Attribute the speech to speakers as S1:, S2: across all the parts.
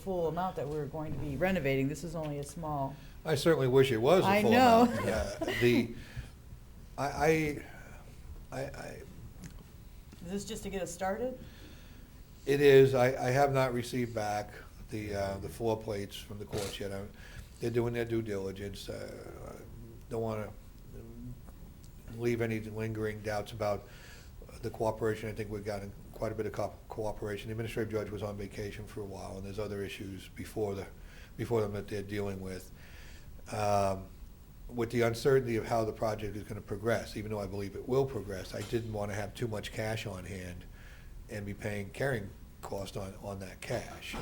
S1: full amount that we're going to be renovating. This is only a small,
S2: I certainly wish it was
S1: I
S2: a full
S1: know.
S2: amount. Yeah, The, I, I, I, I-
S1: is this just to get us started?
S2: it is, I, I have not received back the, uh, the floor plates from the courts yet. I'm- They're doing their due diligence. Uh, I Don't wanna leave any lingering doubts about the cooperation. I think we've gotten quite a bit of co- cooperation. The Administrative judge was on vacation for a while, and there's other issues before the, before them that they're dealing with. Um, With the uncertainty of how the project is gonna progress, even though I believe it will progress, I didn't wanna have too much cash on hand and be paying carrying cost on, on that cash.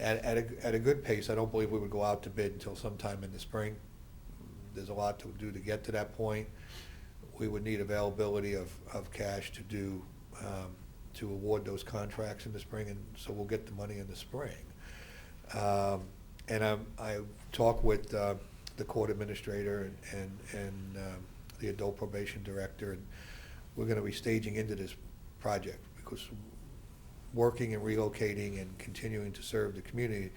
S2: At, at a, at a good pace, I don't believe we would go out to bid until sometime in the spring. There's a lot to do to get to that point. We would need availability of, of cash to do, um, to award those contracts in the spring, and so we'll get the money in the spring. Um, And I, I talked with uh, the court administrator and, and um, the adult probation director, and we're gonna be staging into this project, because working and relocating and continuing to serve the community,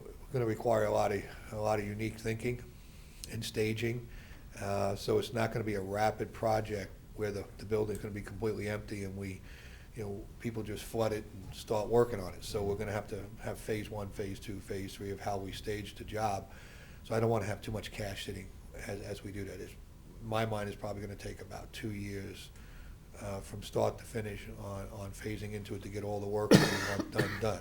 S2: we're gonna require a lot of, a lot of unique thinking and staging. Uh, So it's not gonna be a rapid project where the, the building's gonna be completely empty and we, you know, people just flood it and start working on it. So we're gonna have to have phase one, phase two, phase three of how we stage the job. So I don't wanna have too much cash sitting as, as we do that. It's, my mind is probably gonna take about two years uh, from start to finish on, on phasing into it to get all the work that we want done, done.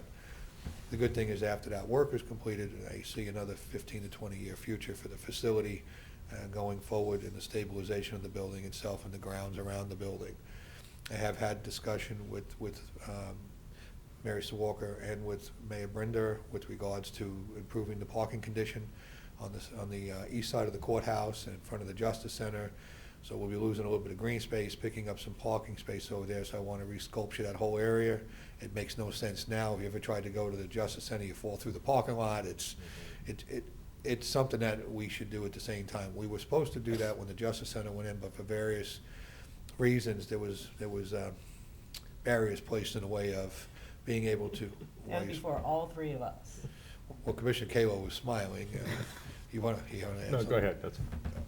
S2: The good thing is after that work is completed, I see another fifteen to twenty-year future for the facility uh, going forward and the stabilization of the building itself and the grounds around the building. I have had discussion with, with um, Mary Sue Walker and with Mayor Brinder with regards to improving the parking condition on this, on the uh, east side of the courthouse and in front of the Justice Center. So we'll be losing a little bit of green space, picking up some parking space over there, so I want to re-sculpture that whole area. It makes no sense now, if you ever tried to go to the Justice Center, you fall through the parking lot, it's, it, it, it's something that we should do at the same time. We were supposed to do that when the Justice Center went in, but for various reasons, there was, there was uh, barriers placed in the way of being able to.
S1: And
S2: raise-
S1: before all three of us.
S2: Well, Commissioner Kayla was smiling. uh, You want to, you want to add
S3: No,
S2: something?
S3: go ahead, that's,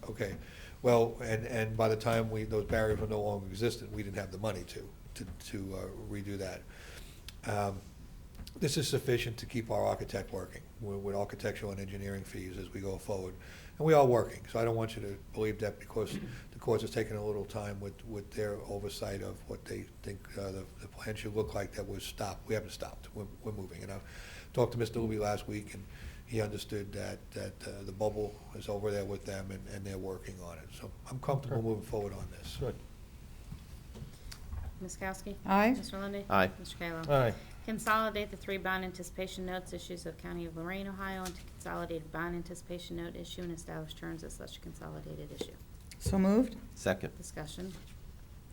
S2: Okay, well, and, and by the time we, those barriers were no longer existent, we didn't have the money to, to, to uh, redo that. Um, This is sufficient to keep our architect working, with with architectural and engineering fees as we go forward. And we are working, so I don't want you to believe that because the courts has taken a little time with, with their oversight of what they think uh, the, the plan should look like that was stopped. We haven't stopped, we're, we're moving. And I talked to Mr. Luby last week, and he understood that, that uh, the bubble is over there with them, and, and they're working on it. So I'm comfortable moving forward on this.
S3: good.
S4: Ms. Kowski?
S1: Aye.
S4: Mr. Lundy.
S5: Aye.
S4: Mr. Kayla?
S3: Aye,
S4: Consolidate the three bond anticipation notes issues of County of Lorraine, Ohio, into consolidated bond anticipation note issue and establish terms of such consolidated issue.
S1: So moved?
S5: Second.
S4: Discussion.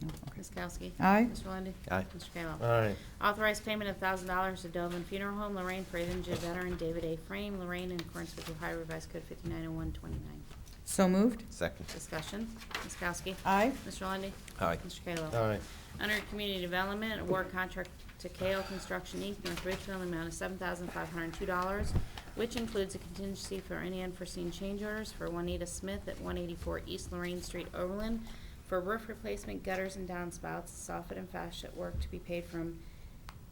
S1: No, okay.
S4: Ms. Kowski?
S1: Aye.
S4: Mr. Lundy.
S5: Aye.
S4: Mr. Kayla?
S3: aye,
S4: Authorize payment of thousand dollars to Dovin Funeral Home, Lorraine, for injured veteran David A. Frame, Lorraine, in accordance with Ohio Revised Code fifty-nine oh one twenty-nine.
S1: So moved?
S5: Second.
S4: Discussion. Ms. Kowski?
S1: Aye.
S4: Mr. Lundy.
S5: Aye.
S4: Mr. Kayla?
S3: aye,
S4: Under Community Development, award contract to KO Construction Inc., North Ridgeville, in the amount of seven thousand five hundred and two dollars, which includes a contingency for any unforeseen change orders for Juanita Smith at one eighty-four East Lorraine Street, Overland, for roof replacement, gutters and downspouts, soffit and fascia work to be paid from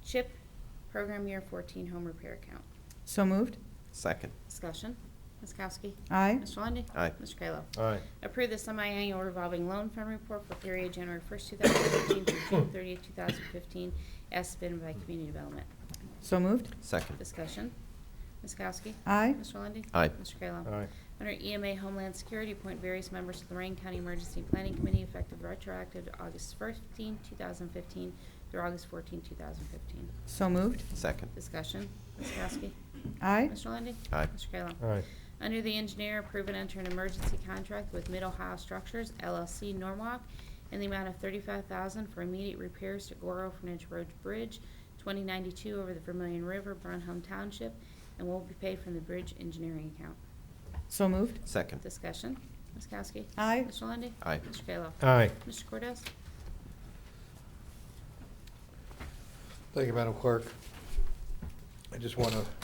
S4: CHIP Program Year fourteen Home Repair Account.
S1: So moved?
S5: Second.
S4: Discussion, Ms. Kowski?
S1: Aye.
S4: Mr. Lundy.
S5: Aye.
S4: Mr. Kayla?
S3: aye,
S4: Approve the semi-annual revolving loan fund report for period January 1st, 2015 through June 30th, 2015, as submitted by Community Development.
S1: So moved?
S5: Second.
S4: Discussion. Ms. Kowski?
S1: Aye.
S4: Mr. Lundey?
S5: Aye.
S4: Mr. Kayla?
S3: aye,
S4: Under EMA Homeland Security, appoint various members to Lorraine County Emergency Planning Committee effective retroactive to August 15, 2015 through August 14, 2015.
S1: So moved?
S5: Second.
S4: Discussion. Ms. Kowski?
S1: Aye.
S4: Mr. Lundey?
S5: Aye.
S4: Mr. Kayla?
S3: aye,
S4: Under the engineer, approve and enter an emergency contract with Mid Ohio Structures LLC Norwalk in the amount of thirty-five thousand for immediate repairs to Gore Orphanage Road Bridge, twenty ninety-two over the Vermillion River, Brunholm Township, and will be paid from the bridge engineering account.
S1: So moved?
S5: Second.
S4: Discussion, Ms. Kowski?
S1: Aye.
S4: Mr. Lundy.
S5: Aye.
S4: Mr. Kayla?
S3: aye,
S4: Mr. Cordez?
S2: Thank you, Madam Clerk. I just want to